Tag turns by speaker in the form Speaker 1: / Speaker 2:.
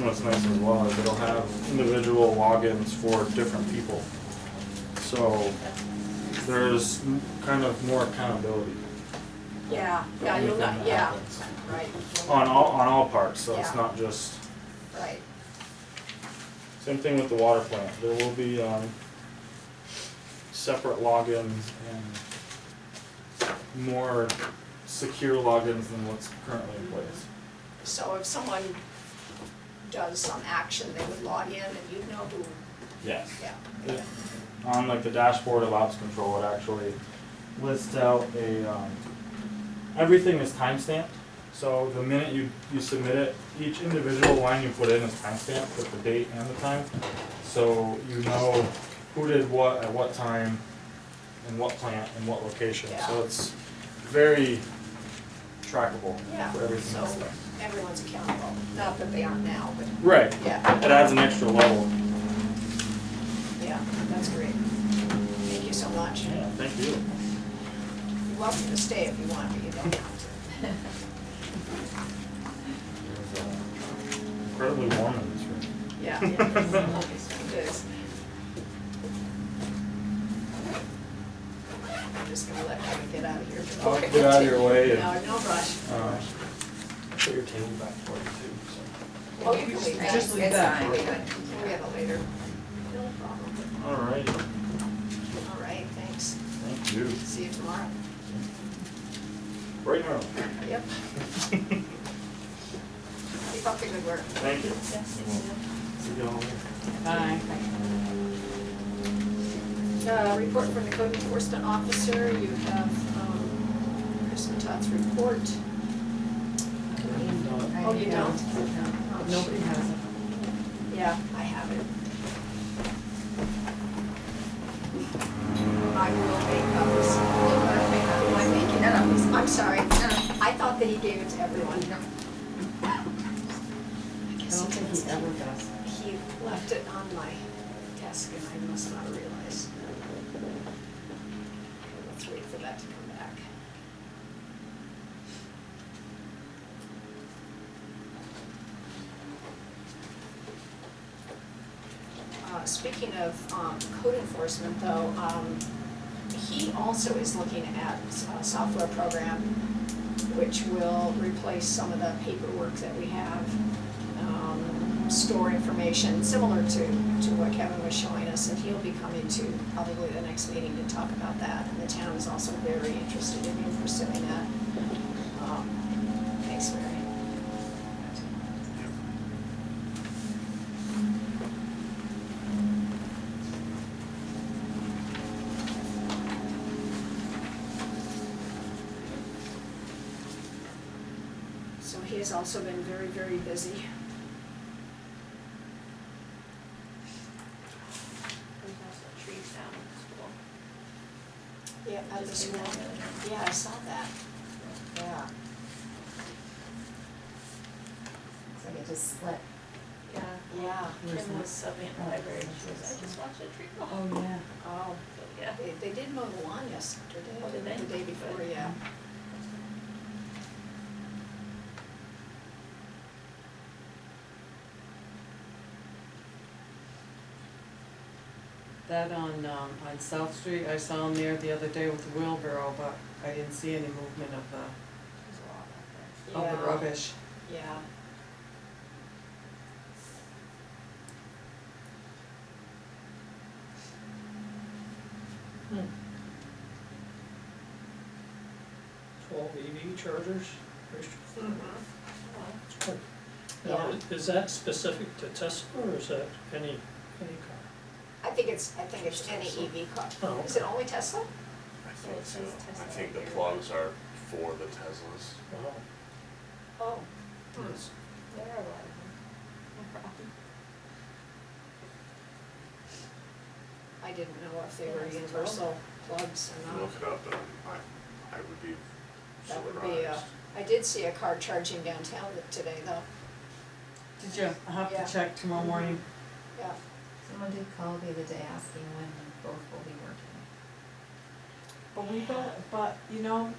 Speaker 1: nice as well, is it'll have individual logins for different people. So there's kind of more accountability
Speaker 2: Yeah, yeah, you'll not, yeah, right,
Speaker 1: on all, on all parts, so it's
Speaker 2: Yeah.
Speaker 1: not just,
Speaker 2: right.
Speaker 1: same thing with the water plant, there will be, um, separate logins and more secure logins than what's currently in place.
Speaker 2: So if someone does some action, they would log in and you'd know who,
Speaker 1: Yes.
Speaker 2: yeah,
Speaker 1: on like the dashboard of ops control, it actually lists out a, um, everything is timestamped. So the minute you, you submit it, each individual line you put in is timestamped with the date and the time. So you know who did what at what time, in what plant, in what location. So
Speaker 2: Yeah.
Speaker 1: it's very trackable
Speaker 2: Yeah,
Speaker 1: for everything
Speaker 2: so
Speaker 1: that's there.
Speaker 2: everyone's accountable. Not that they aren't now, but
Speaker 1: Right,
Speaker 2: yeah,
Speaker 1: it adds an extra level.
Speaker 2: yeah, that's great. Thank you so much.
Speaker 1: Yeah, thank you.
Speaker 2: You're welcome to stay if you want, but you don't have to.
Speaker 1: It's, uh, Incredibly warm in this room.
Speaker 2: Yeah. It is. I'm just gonna let Kevin get out of here. before
Speaker 1: I'll
Speaker 2: I
Speaker 1: get out of your
Speaker 2: continue.
Speaker 1: way and-
Speaker 2: No, no rush.
Speaker 1: Uh,
Speaker 3: Put your table back for you too,
Speaker 2: Oh, you can leave that.
Speaker 4: Just leave
Speaker 2: It's
Speaker 4: that.
Speaker 2: fine. We can- We have it later. No problem.
Speaker 1: All right,
Speaker 2: All right, thanks.
Speaker 1: thank you.
Speaker 2: See you tomorrow.
Speaker 1: Right now.
Speaker 2: Yep. Keep up the good work.
Speaker 1: Thank you. See y'all later.
Speaker 4: Aye.
Speaker 2: Uh, report from the code enforcement officer, you have, um, Kristen Todd's report. Oh, you don't?
Speaker 4: uh,
Speaker 2: Oh,
Speaker 4: No, Nobody has it.
Speaker 2: Yeah, I have it. I will make copies. I'll make copies. I'm making that up. I'm sorry. I thought that he gave it to everyone. I
Speaker 4: I
Speaker 2: guess
Speaker 4: don't think
Speaker 2: he does.
Speaker 4: he ever does.
Speaker 2: He left it on my desk and I must not realize. Okay, Let's wait for that to come back. Uh, speaking of, um, code enforcement though, um, he also is looking at a software program which will replace some of the paperwork that we have um, store information similar to, to what Kevin was showing us, and he'll be coming to probably the next meeting to talk about that. And the town is also very interested in him pursuing that. Um, Thanks, Mary. So he has also been very, very busy.
Speaker 5: There's also trees down at the school.
Speaker 2: Yeah, at the
Speaker 5: Just came
Speaker 2: school.
Speaker 5: out the other day.
Speaker 2: Yeah, I saw that. Yeah.
Speaker 4: It's like it just slipped.
Speaker 5: Yeah,
Speaker 2: Yeah.
Speaker 4: Where's
Speaker 5: Kim
Speaker 4: that?
Speaker 5: was subbing at the
Speaker 4: Oh,
Speaker 5: library, and
Speaker 4: that's
Speaker 5: she was, I
Speaker 4: interesting.
Speaker 5: just watched a tree fall.
Speaker 4: Oh, yeah.
Speaker 2: Oh,
Speaker 5: So, yeah.
Speaker 2: they, they did mow the lawn yesterday.
Speaker 5: Oh, did they?
Speaker 2: The day before, yeah.
Speaker 4: That on, um, on South Street, I saw him there the other day with the wheelbarrow, but I didn't see any movement of the,
Speaker 5: There's a lot Oh, out
Speaker 2: Yeah.
Speaker 4: of
Speaker 5: there.
Speaker 4: Oh, the rubbish.
Speaker 2: Yeah.
Speaker 3: Twelve EV chargers?
Speaker 5: Well,
Speaker 3: Now, is that specific to Tesla or is that any, any car?
Speaker 2: I think it's, I think it's any EV car.
Speaker 3: Oh,
Speaker 2: Is it only Tesla?
Speaker 6: I
Speaker 5: Yeah,
Speaker 6: think
Speaker 5: it
Speaker 6: so.
Speaker 5: says Tesla
Speaker 6: I think the
Speaker 5: here.
Speaker 6: plugs are for the Teslas.
Speaker 3: Wow.
Speaker 2: Oh.
Speaker 3: Yes.
Speaker 5: There are a lot of them. No problem.
Speaker 2: I didn't know if they were universal plugs or not.
Speaker 6: Look it up and I, I would be
Speaker 2: That would be, uh,
Speaker 6: surprised.
Speaker 2: I did see a car charging downtown today though,
Speaker 4: Did you? I'll have
Speaker 2: Yeah.
Speaker 4: to check tomorrow morning.
Speaker 2: yeah.
Speaker 7: Someone did call the other day asking when both will be working.
Speaker 4: But we, don't- but, you know,